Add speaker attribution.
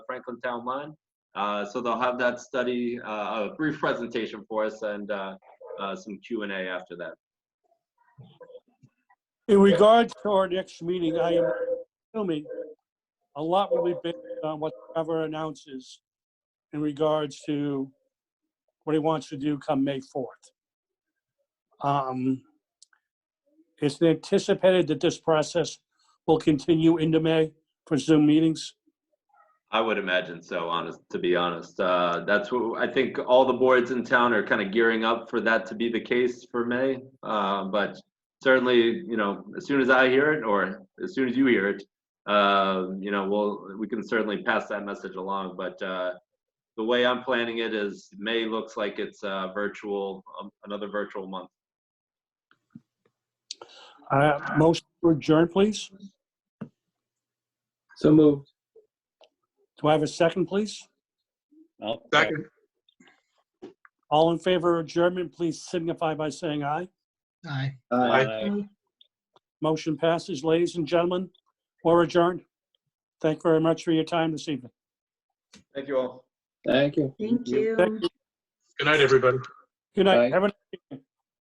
Speaker 1: Franklin Town Line. Uh, So they'll have that study, uh, a brief presentation for us and uh, uh, some Q and A after that.
Speaker 2: In regards to our next meeting, I am assuming a lot will be based on whatever announces in regards to what he wants to do come May 4th. Um, It's anticipated that this process will continue into May for Zoom meetings.
Speaker 1: I would imagine so, honest, to be honest. Uh, That's what, I think all the boards in town are kind of gearing up for that to be the case for May. Uh, But certainly, you know, as soon as I hear it, or as soon as you hear it, uh, you know, we'll, we can certainly pass that message along. But uh, the way I'm planning it is May looks like it's uh, virtual, um, another virtual month.
Speaker 2: Uh, Most adjourn, please.
Speaker 3: So moved.
Speaker 2: Do I have a second, please?
Speaker 4: I'll-
Speaker 5: Second.
Speaker 2: All in favor of adjournment, please signify by saying aye.
Speaker 5: Aye.
Speaker 3: Aye.
Speaker 2: Motion passes, ladies and gentlemen. We're adjourned. Thank you very much for your time this evening.
Speaker 1: Thank you all.
Speaker 3: Thank you.
Speaker 6: Thank
Speaker 2: Thank
Speaker 6: you.
Speaker 5: Good night, everybody.
Speaker 2: Good night.
Speaker 3: Bye.
Speaker 2: Have a-